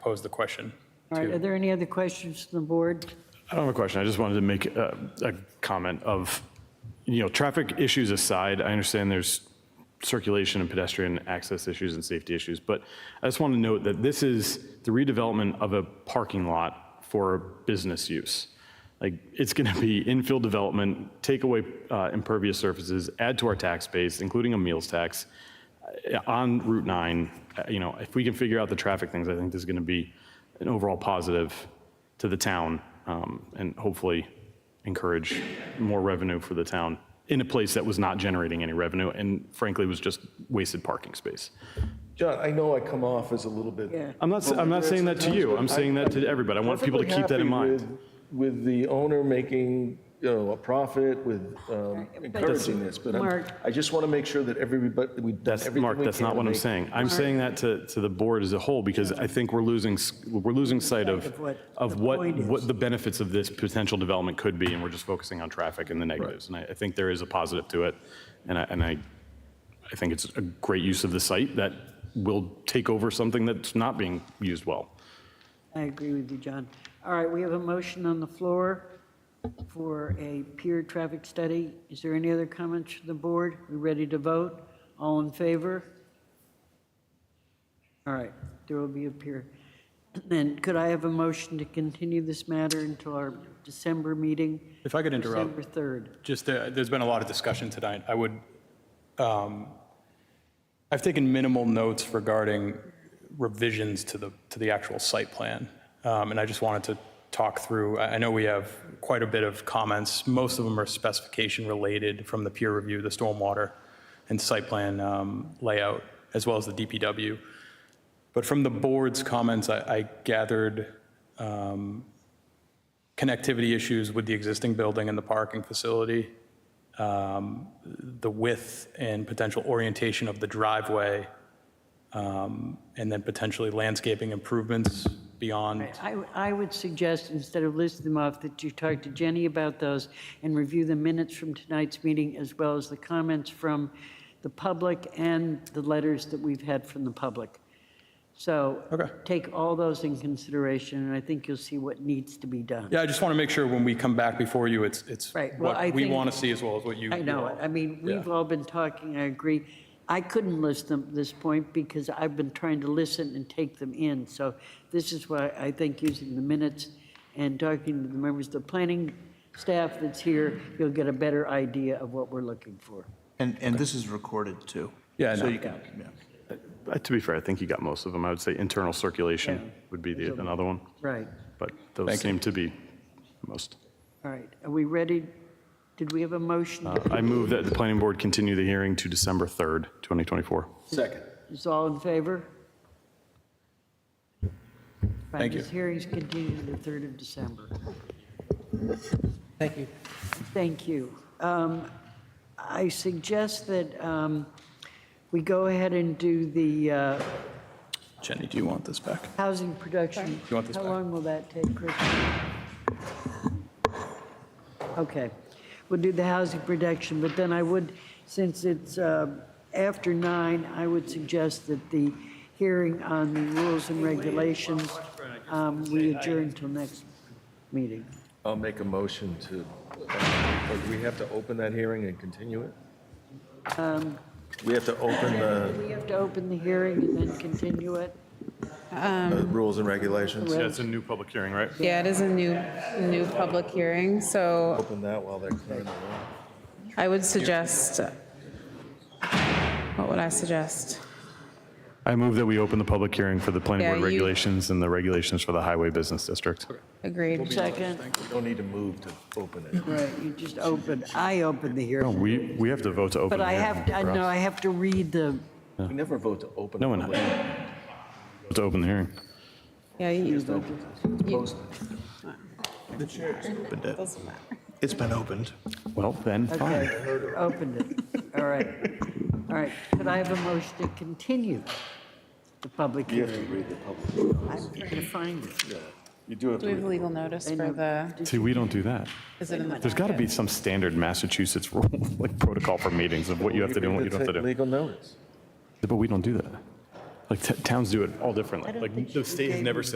pose the question. All right, are there any other questions from the board? I don't have a question. I just wanted to make a, a comment of, you know, traffic issues aside, I understand there's circulation and pedestrian access issues and safety issues, but I just want to note that this is the redevelopment of a parking lot for business use. Like, it's going to be infill development, take away uh, impervious surfaces, add to our tax base, including a meals tax, uh, on Route 9. uh, You know, if we can figure out the traffic things, I think this is going to be an overall positive to the town um, and hopefully encourage more revenue for the town in a place that was not generating any revenue and frankly was just wasted parking space. John, I know I come off as a little bit. Yeah. I'm not, I'm not saying that to you, I'm saying that to everybody. I want people to keep that in mind. Perfectly happy with- With the owner making, you know, a profit, with um, but- encouraging this, but I'm- Mark. I just want to make sure that everybody, we've done That's, everything Mark, we that's can not to what I'm make- saying. I'm saying that to, to the board as a whole, because I think we're losing, s- we're losing sight of, Of what of the what, point is. what the benefits of this potential development could be, and we're just focusing on traffic and the negatives. And I, I think there is a positive to it, and I, and I, I think it's a great use of the site that will take over something that's not being used well. I agree with you, John. All right, we have a motion on the floor for a peer traffic study. Is there any other comments from the board? We ready to vote? All in favor? All right, there will be a peer. And could I have a motion to continue this matter until our December meeting? If I could interrupt, December 3rd. just, uh, there's been a lot of discussion tonight. I would, um, I've taken minimal notes regarding revisions to the, to the actual site plan. Um, And I just wanted to talk through, I I know we have quite a bit of comments. Most of them are specification related from the peer review, the stormwater and site plan um, layout, as well as the DPW. But from the board's comments, I I gathered um, connectivity issues with the existing building and the parking facility, um, the width and potential orientation of the driveway, um, and then potentially landscaping improvements beyond. I, I would suggest, instead of listing them off, that you talk to Jenny about those and review the minutes from tonight's meeting, as well as the comments from the public and the letters that we've had from the public. So Okay. take all those in consideration, and I think you'll see what needs to be done. Yeah, I just want to make sure when we come back before you, it's, it's Right, well, I what we think- want to see as well as what you. I know, it. I mean, we've all been talking, I agree. I couldn't list them at this point because I've been trying to listen and take them in. So this is why I think using the minutes and talking to the members of the planning staff that's here, you'll get a better idea of what we're looking for. And, and this is recorded too. Yeah, I So know. you can, yeah. Uh, To be fair, I think you got most of them. I would say internal circulation would be the, another one, Right, but those seem to be most. all right. Are we ready? Did we have a motion? Uh, I move that the planning board continue the hearing to December 3rd, 2024. Second. Is all in favor? Thank you. This hearing's continued to the 3rd of December. Thank you. Thank you. Um, I suggest that um, we go ahead and do the uh, Jenny, do you want this back? housing production. you want this How back? long will that take, Chris? Okay, we'll do the housing production, but then I would, since it's uh, after nine, I would suggest that the hearing on the rules and regulations, um, we adjourn till next meeting. I'll make a motion to, uh, do we have to open that hearing and continue it? Um, We have to open the We have to open the hearing and then continue it. uh, um, rules and regulations, That's a new public hearing, right? Yeah, it is a new, new public hearing, so open that while they're clearing the room. I would suggest, what would I suggest? I move that we open the public hearing for the planning Yeah, board you- regulations and the regulations for the highway business district. Agreed. Second. We don't need to move to open it. Right, you just opened, I opened the No, hearing, we, we have to vote to but open. the I hearing, have, I know, I have to read the, We never vote to open. No one- public hearing. Vote To open the hearing. Yeah, you, Opened it. It's been opened. Well, then, fine. okay, opened it, all right. All right, could I have a motion to continue the public You have to hearing? read the public. I'm trying to find it. You do have to do we read have legal notice I know. for the, See, we don't do that. is it in the? There's got to be some standard Massachusetts rule, like protocol for meetings of what you have to do and what you don't have to do. Legal notice. But we don't do that. Like t- towns do it all differently. Like the state has never said